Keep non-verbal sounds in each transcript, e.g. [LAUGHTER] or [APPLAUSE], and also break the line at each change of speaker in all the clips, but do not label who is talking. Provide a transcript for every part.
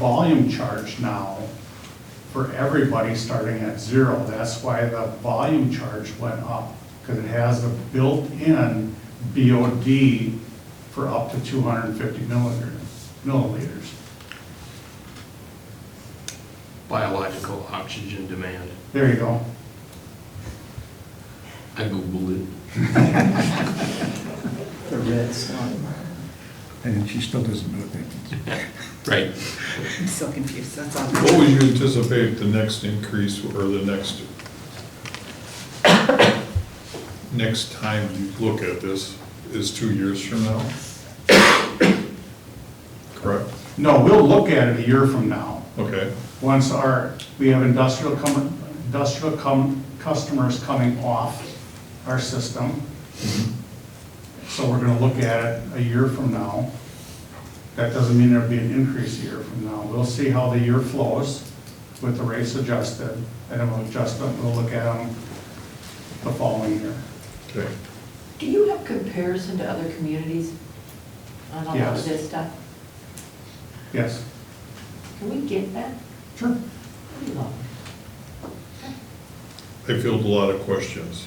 volume charge now for everybody starting at zero. That's why the volume charge went up, because it has a built-in BOD for up to two hundred and fifty milliliter, milliliters.
biological oxygen demand.
There you go.
I Googled it.
The red slime.
And she still doesn't know that.
Right.
I'm so confused, that's all.
What would you anticipate the next increase or the next, next time you look at this is two years from now? Correct?
No, we'll look at it a year from now.
Okay,
Once our, we have industrial com, industrial com, customers coming off our system. So we're gonna look at it a year from now. That doesn't mean there'll be an increase a year from now. We'll see how the year flows with the rates adjusted, and then we'll adjust them, we'll look at them the following year.
okay.
Do you have comparison to other communities on all
Yes.
of this stuff?
Yes,
Can we get that?
sure.
That'd be lovely.
I field a lot of questions.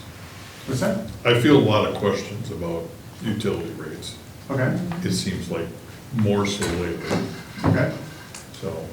What's that?
I feel a lot of questions about utility rates.
Okay,
It seems like more so lately,
okay.
so.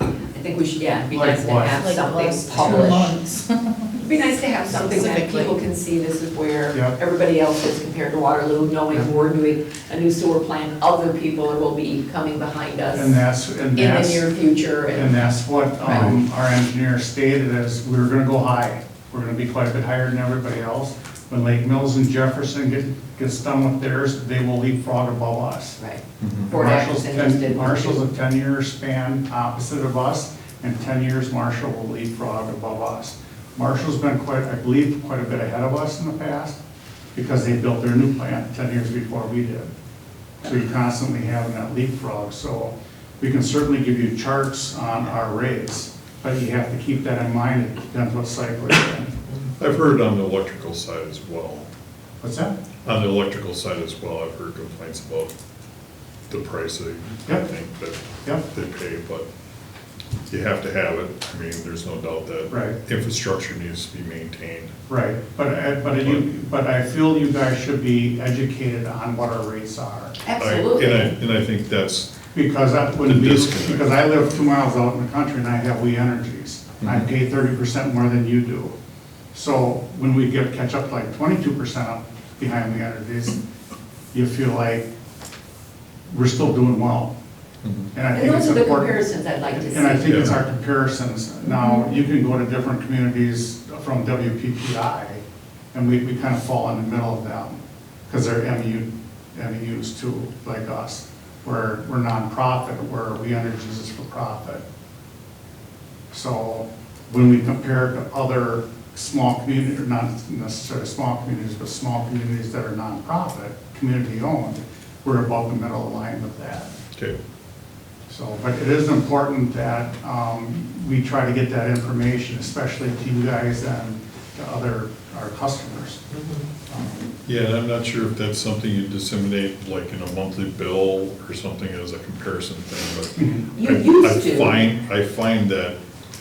I think we should, yeah, it'd be nice to
Likewise.
have
Like the last
something
two
published.
months.
[LAUGHS] It'd be nice to have something that
Specifically.
people can see, this is where
Yeah.
everybody else is compared to Waterloo,
Yeah.
knowing we're doing a new sewer plant, other people will be coming behind us
And that's, and
in the
that's.
near future,
And
and
that's what um, our engineer stated, is we were gonna go high. We're gonna be quite a bit higher than everybody else. When Lake Mills and Jefferson get, gets done with theirs, they will leapfrog above us.
right.
Mhm.
Fort
Marshall's
Atkinson
ten-
just did one, too.
Marshall's a ten-year span opposite of us, and ten years Marshall will leapfrog above us. Marshall's been quite, I believe, quite a bit ahead of us in the past, because they built their new plant ten years before we did. So you're constantly having that leapfrog, so we can certainly give you charts on our rates, but you have to keep that in mind, it depends what cycle you're in.
I've heard on the electrical side as well.
What's that?
On the electrical side as well, I've heard complaints about the price of, I
Yep.
think,
Yep.
that they pay, but you have to have it. I mean, there's no doubt that.
Right.
Infrastructure needs to be maintained.
Right, but, I- but you, but I feel you guys should be educated on what our rates are.
Absolutely.
I- And I, and I think that's,
Because I, when
The
we,
disconnect.
because I live two miles out in the country and I have We Energies. I
Mhm.
pay thirty percent more than you do. So when we get, catch up like twenty-two percent up behind We Energies, you feel like we're still doing well. And I
And
think it's
those are the
important.
comparisons I'd like to see.
And I think it's
Yeah.
our comparisons. Now, you can go to different communities from WPPI and we, we kind of fall in the middle of them. Because they're MU, MUs too, like us. We're, we're nonprofit, where We Energies is for profit. So when we compare to other small community, or not necessarily small communities, but small communities that are nonprofit, community-owned, we're above the middle line with that.
okay,
So, but it is important that um, we try to get that information, especially to you guys and to other, our customers.
yeah, and I'm not sure if that's something you disseminate, like in a monthly bill or something as a comparison thing, but.
You
I-
used to.
I find, I find that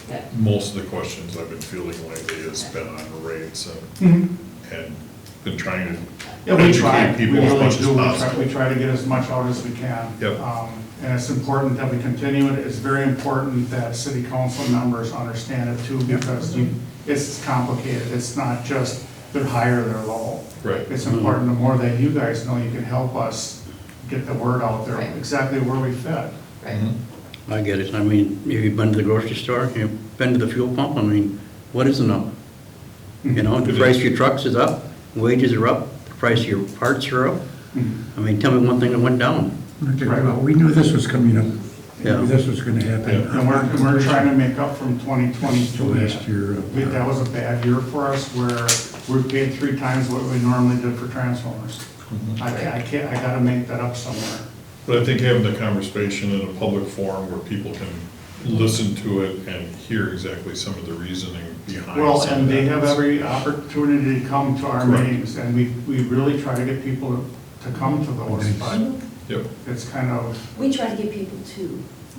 Yeah.
most of the questions I've been feeling lately has been on rates and and been trying to
Mm-hmm. Yeah, we try.
educate
We
people as
really
much as
do. We try- We
possible.
try to get as much out as we can.
Yep.
Um, And it's important that we continue it. It's very important that city council members understand it too, because you- it's complicated. It's not just they're high or they're low.
Right.
It's important, the more that you guys know, you can help us get the word out there,
Right.
exactly where we fit.
Right.
Mhm.
I get it. I mean, if you've been to the grocery store, you've been to the fuel pump, I mean, what is an up? You know, the price of your trucks is up, wages are up, the price of your parts are up.
Mm-hmm.
I mean, tell me one thing that went down.
Okay, well, we knew this was coming up. We knew This was gonna happen.
Yeah.
And we're, and we're trying to make up from
To
2022.
last year.
We- That was a bad year for us where we paid three times what we normally did for transformers.
Mm-hmm.
I ca- I can't, I gotta make that up somewhere.
But I think having the conversation in a public forum where people can listen to it and hear exactly some of the reasoning behind.
Well,
some
and
of
they
that
have
is-
every opportunity to come to our
Correct.
meetings and we, we really try to get people to come to those, but
Yep,
it's kind of,
We try to get people to,